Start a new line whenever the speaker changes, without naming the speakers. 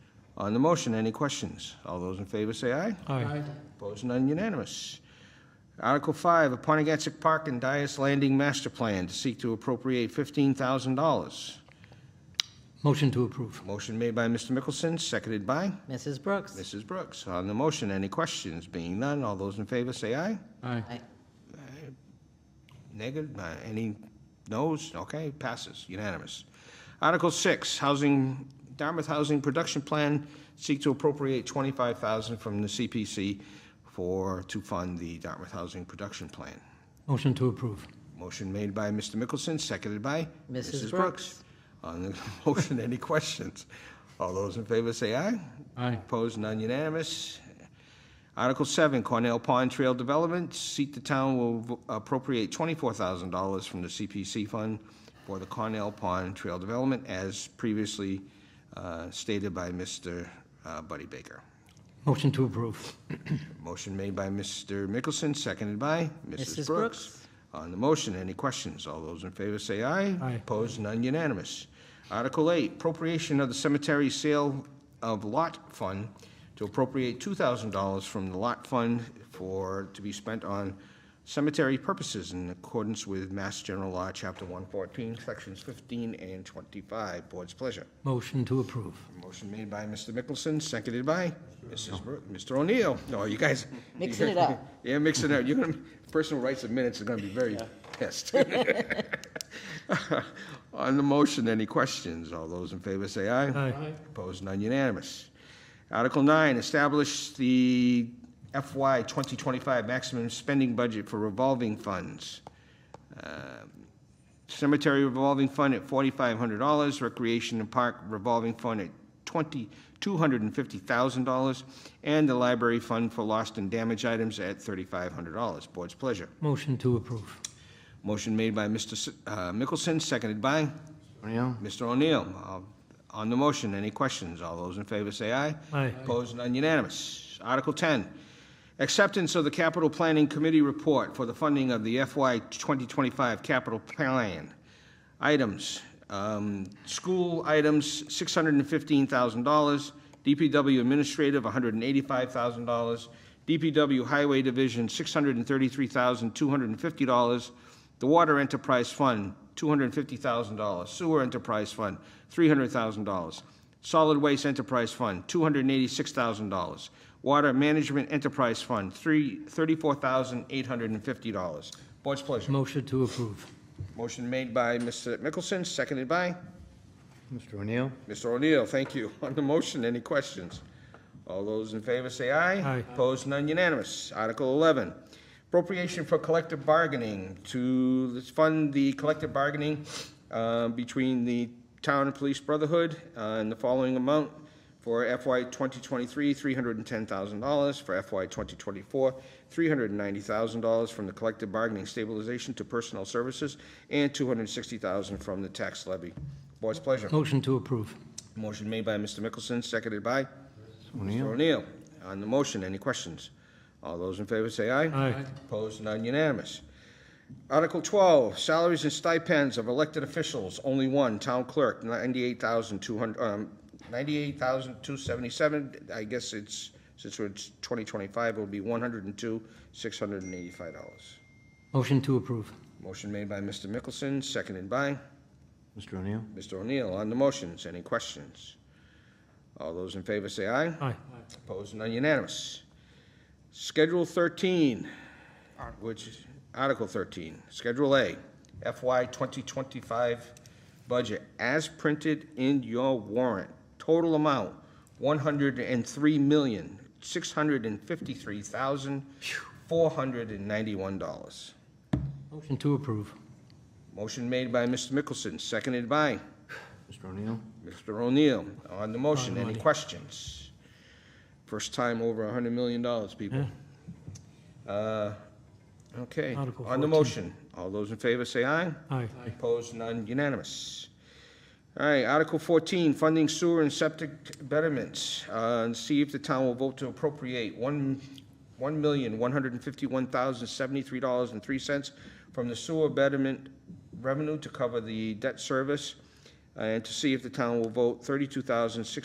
On the motion, any questions? All those in favor say aye.
Aye.
Opposed, none unanimous. Article 5, Aponigetsic Park and Dias Landing Master Plan to seek to appropriate $15,000.
Motion to approve.
Motion made by Mr. Mickelson, seconded by
Mrs. Brooks.
Mrs. Brooks. On the motion, any questions? Being none, all those in favor say aye.
Aye.
Aye.
Negative, uh, any noes? Okay, passes, unanimous. Article 6, Housing, Dartmouth Housing Production Plan, seek to appropriate 25000 from the CPC for, to fund the Dartmouth Housing Production Plan.
Motion to approve.
Motion made by Mr. Mickelson, seconded by
Mrs.
Mrs. Brooks.
Brooks.
On the motion, any questions? All those in favor say aye.
Aye.
Opposed, none unanimous. Article 7, Cornell Pond Trail Development, seat the town will v- appropriate $24,000 from the CPC fund for the Cornell Pond Trail Development, as previously uh, stated by Mr. uh, Buddy Baker.
Motion to approve.
Motion made by Mr. Mickelson, seconded by Mrs. Brooks.
Mrs. Brooks.
On the motion, any questions? All those in favor say aye.
Aye.
Opposed, none unanimous. Article 8, appropriation of the cemetery sale of lot fund to appropriate $2,000 from the lot fund for, to be spent on cemetery purposes in accordance with Mass General Law, Chapter 114, Sections 15 and 25. Board's pleasure.
Motion to approve.
Motion made by Mr. Mickelson, seconded by Mrs. Bro- Mr. O'Neill. No, you guys.
Mixing it up.
Yeah, mixing it up. You're gonna, person who writes the minutes is gonna be very pissed. On the motion, any questions? All those in favor say aye.
Aye.
Opposed, none unanimous. Article nine, establish the FY 2025 maximum spending budget for revolving funds. Uh, Cemetery revolving fund at forty-five hundred dollars, recreation and park revolving fund at twenty, two hundred and fifty thousand dollars, and the library fund for lost and damaged items at thirty-five hundred dollars. Board's pleasure.
Motion to approve.
Motion made by Mr. S- uh, Mickelson, seconded by? Mr. O'Neill. Uh, On the motion, any questions? All those in favor say aye.
Aye.
Opposed, none unanimous. Article 10, acceptance of the Capital Planning Committee report for the funding of the FY 2025 capital plan. Items, um, school items, $615,000, DPW administrative, $185,000, DPW Highway Division, $633,250, the Water Enterprise Fund, $250,000. Sewer Enterprise Fund, $300,000. Solid Waste Enterprise Fund, $286,000. Water Management Enterprise Fund, three- $34,850. Board's pleasure.
Motion to approve.
Motion made by Mr. Mickelson, seconded by
Mr. O'Neill?
Mr. O'Neill. Thank you. On the motion, any questions? All those in favor say aye.
Aye.
Opposed, none unanimous. Article 11, appropriation for collective bargaining to fund the collective bargaining uh, between the Town and Police Brotherhood uh, in the following amount for FY 2023, $310,000, for FY 2024, $390,000 from the collective bargaining stabilization to personnel services, and $260,000 from the tax levy. Board's pleasure.
Motion to approve.
Motion made by Mr. Mickelson, seconded by? Mr. O'Neill. On the motion, any questions? All those in favor say aye.
Aye.
Opposed, none unanimous. Article 12, salaries and stipends of elected officials, only one, town clerk, 98,200, um, 98,277. I guess it's, since it's 2025, it'll be 102,685 dollars.
Motion to approve.
Motion made by Mr. Mickelson, seconded by?
Mr. O'Neill?
Mr. O'Neill, on the motions, any questions? All those in favor say aye.
Aye.
Opposed, none unanimous. Schedule 13, which, Article 13, Schedule A, FY 2025 budget, as printed in your warrant. Total amount, $103,653,491.
Motion to approve.
Motion made by Mr. Mickelson, seconded by?
Mr. O'Neill?
Mr. O'Neill, on the motion,
On the
any
money.
questions? First time over a hundred million dollars, people. Uh, Okay,
Article
on the
14.
motion, all those in favor say aye.
Aye.
Opposed, none unanimous. All right, Article 14, funding sewer and septic betterments. Uh, and See if the town will vote to appropriate one one million one hundred $1,151,073.03 from the sewer betterment Uh, revenue to cover the debt service, and to see if the town will vote 32600